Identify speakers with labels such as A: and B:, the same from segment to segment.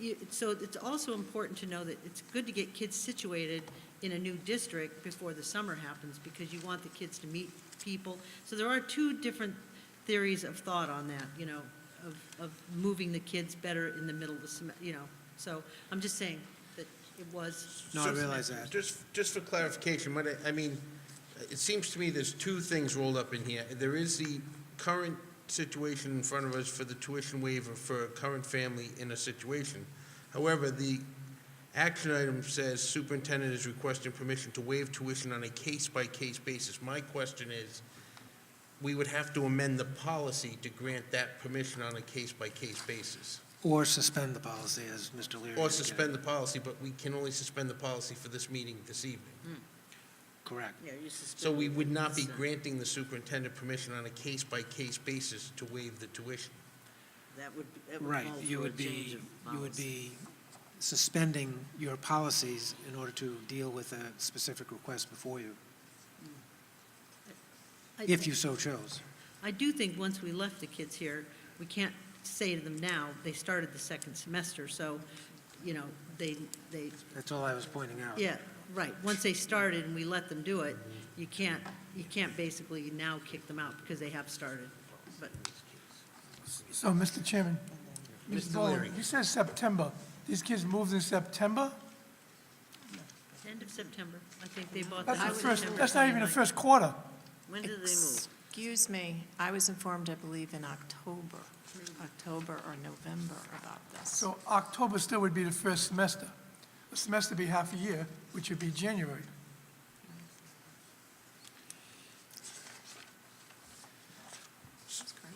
A: you- so it's also important to know that it's good to get kids situated in a new district before the summer happens, because you want the kids to meet people. So there are two different theories of thought on that, you know, of, of moving the kids better in the middle of the sem, you know. So I'm just saying that it was.
B: No, I
C: So-
B: realize that.
C: Just, just for clarification, what I, I mean, it seems to me there's two things rolled up in here. There is the current situation in front of us for the tuition waiver for a current family in a situation. However, the action item says superintendent is requesting permission to waive tuition on a case-by-case basis. My question is, we would have to amend the policy to grant that permission on a case-by-case basis.
B: Or suspend the policy, as Mr. Leary.
C: Or
B: indicated.
C: suspend the policy, but we can only suspend the policy for this meeting this evening.
B: Correct.
A: Yeah, you
C: So we would not be granting the superintendent permission on a case-by-case basis to waive the tuition.
A: That would,
B: Right. You would be, you would be suspending your policies in order to deal with a specific request before you, if you so chose.
A: I do think once we left the kids here, we can't say to them now, they started the second semester, so, you know, they, they,
B: That's all I was pointing out.
A: yeah, right. Once they started and we let them do it, you can't, you can't basically now kick them out because they have started. But
D: So, Mr. Chairman. Ms.
C: Mr.
D: Bowen,
C: Leary.
D: You said September. These kids moved in September?
A: end of September, I think they bought the
D: That's the
A: house
D: first,
A: September.
D: that's not even the first quarter.
A: When did they move?
E: Excuse me, I was informed, I believe, in October, October or November about this.
D: So October still would be the first semester. The semester would be half a year, which would be January.
E: That's great.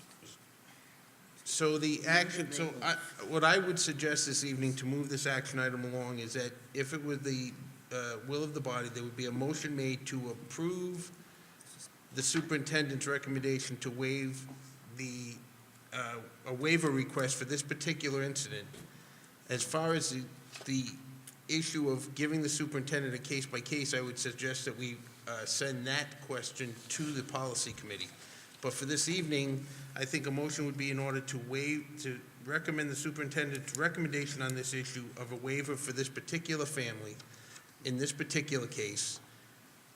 C: So the action, so I, what I would suggest this evening to move this action item along is that if it were the uh, will of the body, there would be a motion made to approve the superintendent's recommendation to waive the, uh, a waiver request for this particular incident. As far as the, the issue of giving the superintendent a case by case, I would suggest that we uh, send that question to the policy committee. But for this evening, I think a motion would be in order to waive, to recommend the superintendent's recommendation on this issue of a waiver for this particular family in this particular case.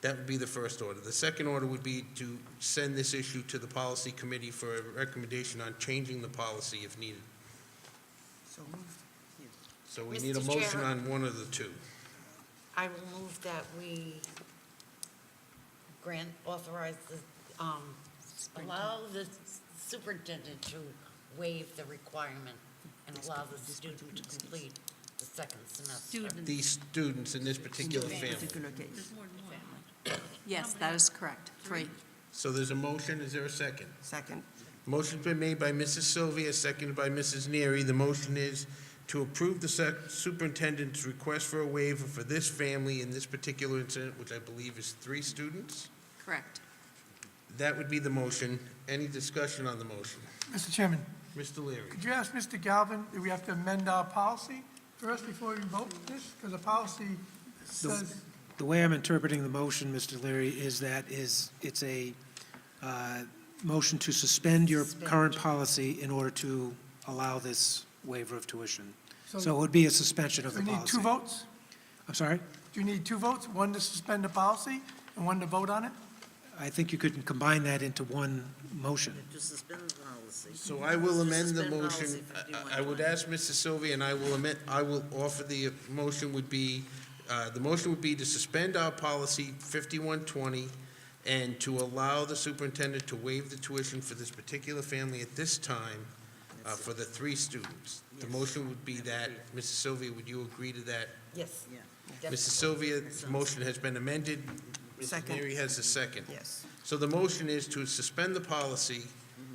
C: That would be the first order. The second order would be to send this issue to the policy committee for a recommendation on changing the policy if needed. So we need a
F: Mr.
C: motion
F: Chair.
C: on one of the two.
F: I will move that we grant, authorize the, um, allow the superintendent to waive the requirement and allow the student to complete the second semester.
A: Students.
C: These students in this particular family.
A: There's more than one.
E: Yes, that is correct, three.
C: So there's a motion, is there a second?
G: Second.
C: Motion's been made by Mrs. Sylvia, seconded by Mrs. Neary. The motion is to approve the sec- superintendent's request for a waiver for this family in this particular incident, which I believe is three students.
E: Correct.
C: That would be the motion. Any discussion on the motion?
D: Mr. Chairman,
C: Mr. Leary?
D: could you ask Mr. Galvin, do we have to amend our policy first before we vote this? Because the policy says,
B: The way I'm interpreting the motion, Mr. Leary, is that is, it's a uh, motion to suspend your current policy in order to allow this waiver of tuition. So it
D: so
B: would be a suspension of
D: we
B: the
D: need
B: policy.
D: two votes?
B: I'm sorry?
D: Do you need two votes? One to suspend the policy and one to vote on it?
B: I think you could combine that into one motion.
G: To suspend the policy.
C: So I will amend the
G: Suspend
C: motion.
G: policy
C: I- I would ask Mrs. Sylvia, and I will amend, I will offer the motion would be, uh, the motion would be to suspend our policy 5120 and to allow the superintendent to waive the tuition for this particular family at this time uh, for the three students. The motion would be that, Mrs. Sylvia, would you agree to that?
F: Yes.
G: Yeah.
F: Def-
C: Mrs. Sylvia's motion has been amended. Mrs.
G: Second.
C: Leary has a second.
G: Yes.
C: So the motion is to suspend the policy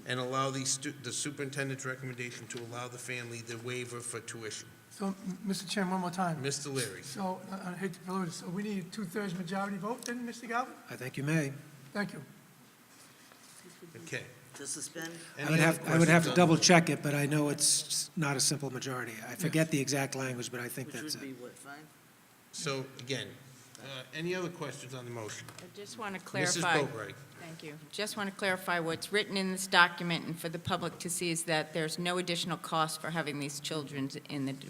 C: and allow the stu, the superintendent's recommendation to allow the family the waiver for tuition.
D: So, m- Mr. Chairman, one more time.
C: Mr. Leary?
D: So, uh, I I hate to pollute it, so we need a two-thirds majority vote then, Mr. Galvin?
B: I think you may.
D: Thank you.
C: Okay.
G: To suspend?
B: I
C: Any
B: would
C: other
B: have, I would have to
C: questions on-
B: double-check it, but I know it's not a simple majority. I forget the exact language, but I think
G: Which
B: that's
G: would be
B: it.
G: what, five?
C: So, again, uh, any other questions on the motion?
H: I just want to clarify.
C: Mrs. Boatright?
H: Thank you. Just want to clarify what's written in this document and for the public to see is that there's no additional cost for having these children in the d-